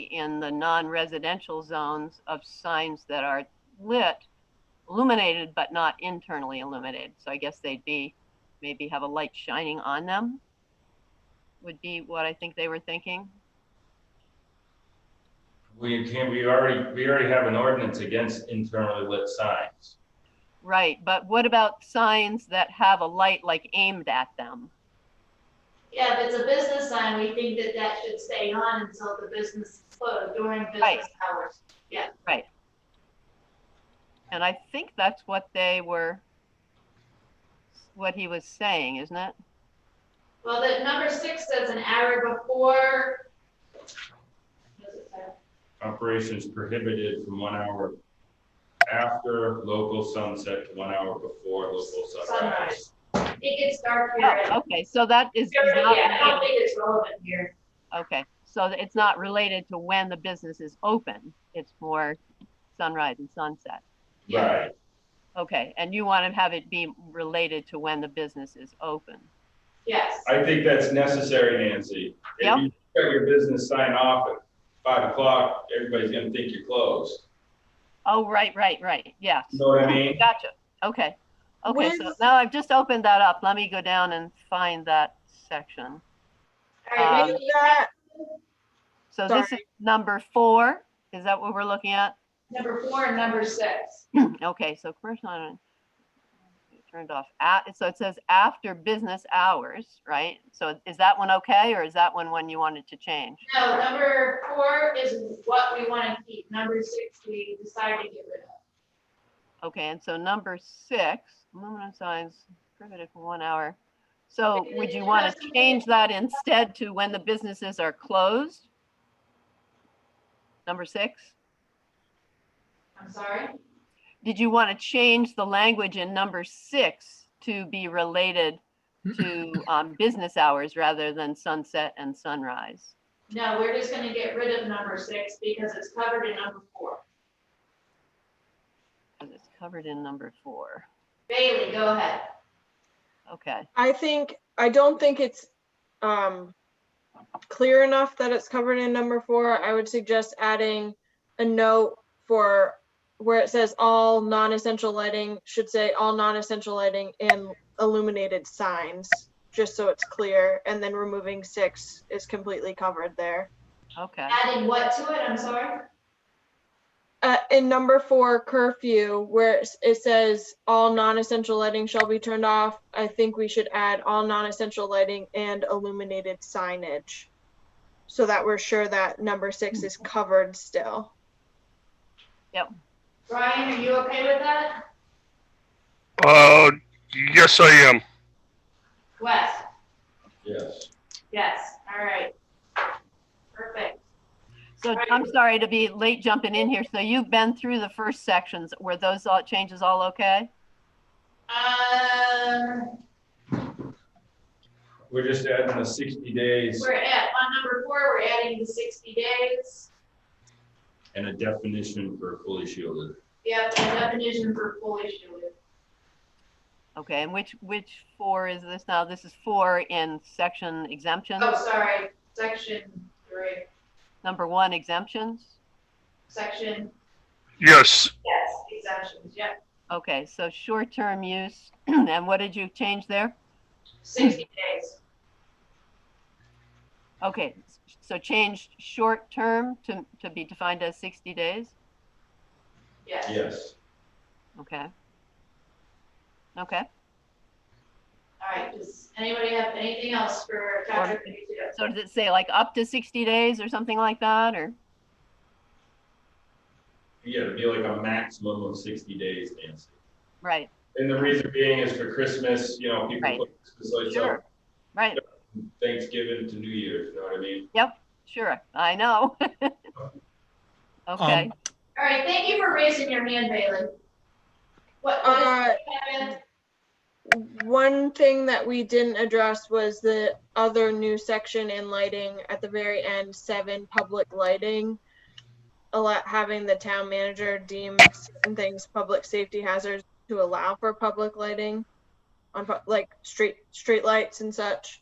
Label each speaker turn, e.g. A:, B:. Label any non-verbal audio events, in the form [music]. A: in the non-residential zones of signs that are lit, illuminated but not internally illuminated. So I guess they'd be, maybe have a light shining on them would be what I think they were thinking.
B: We can, we already, we already have an ordinance against internally lit signs.
A: Right, but what about signs that have a light like aimed at them?
C: Yeah, if it's a business sign, we think that that should stay on until the business is closed during
A: Right.
C: business hours.
A: And I think that's what they were, what he was saying, isn't it?
C: Well, the number six says an hour before. what does it say?
B: Operations prohibited from one hour after local sunset to one hour before local sunrise.
C: It gets dark here.
A: Oh, okay, so that is
C: Here,
A: not
C: Yeah, I
A: related-
C: don't think it's relevant here.
A: Okay, so th- it's not related to when the business is open. It's more sunrise and sunset.
C: Yeah.
B: Right,
A: Okay, and you want to have it be related to when the business is open.
C: Yes,
B: I think that's necessary, Nancy.
A: Yeah.
B: If you got your business sign off at five o'clock, everybody's gonna think you're closed.
A: Oh, right, right, right, yes.
B: You know what I mean?
A: Gotcha, okay. Okay, so
D: Where's-
A: now I've just opened that up. Let me go down and find that section.
C: all right,
A: Um,
C: maybe
D: Is that-
A: So this is
D: Sorry.
A: number four, is that what we're looking at?
C: number four and number six.
A: Okay, so commercial, I don't- turned off, at, so it says after business hours, right? So is that one okay, or is that one one you wanted to change?
C: No, number four is what we want to keep. Number six, we decided to get rid of.
A: Okay, and so number six, aluminum signs prohibited for one hour. So would you want to change that instead to when the businesses are closed? Number six,
C: I'm sorry?
A: did you want to change the language in number six to be related to um, business hours rather than sunset and sunrise?
C: No, we're just gonna get rid of number six because it's covered in number four.
A: Because it's covered in number four.
C: Bailey, go ahead.
A: Okay,
D: I think, I don't think it's um, clear enough that it's covered in number four. I would suggest adding a note for where it says all non-essential lighting, should say all non-essential lighting and illuminated signs, just so it's clear, and then removing six is completely covered there.
A: okay.
C: Adding what to it, I'm sorry?
D: Uh, in number four curfew, where it's- it says all non-essential lighting shall be turned off, I think we should add all non-essential lighting and illuminated signage. So that we're sure that number six is covered still.
C: Brian, are you okay with that?
E: Uh, yes, I am.
C: Wes?
B: Yes.
C: Yes, all right. Perfect.
A: So
C: Right.
A: I'm sorry to be late jumping in here. So you've been through the first sections. Were those all changes all okay?
C: Um,
B: We're just adding the sixty days
C: we're at, on number four, we're adding the sixty days.
B: and a definition for fully shielded.
C: Yep, the definition for fully shielded.
A: Okay, and which, which four is this now? This is four in section exemptions,
C: Oh, sorry, section three,
A: number one exemptions.
C: section,
E: Yes,
C: yes, exemptions, yep,
A: Okay, so short-term use, [clears throat] and what did you change there?
C: sixty days.
A: Okay, so change short-term to, to be defined as 60 days,
C: Yes.
B: Yes.
A: okay? Okay,
C: All right, does anybody have anything else for chapter fifty-two?
A: so does it say like up to 60 days or something like that, or?
B: Yeah, it'd be like a maximum of sixty days, Nancy.
A: Right,
B: And the reason being is for Christmas, you know, people
A: Right.
B: put Christmas lights up
A: sure, right,
B: from Thanksgiving to New Year's, you know what I mean?
A: sure, I know. [laughs] Okay,
C: All right, thank you for raising your hand, Bailey. What, what
D: Uh,
C: happened?
D: One thing that we didn't address was the other new section in lighting at the very end, seven, public lighting. A lot, having the town manager deem certain things public safety hazards to allow for public lighting on, pu- like, street, street lights and such.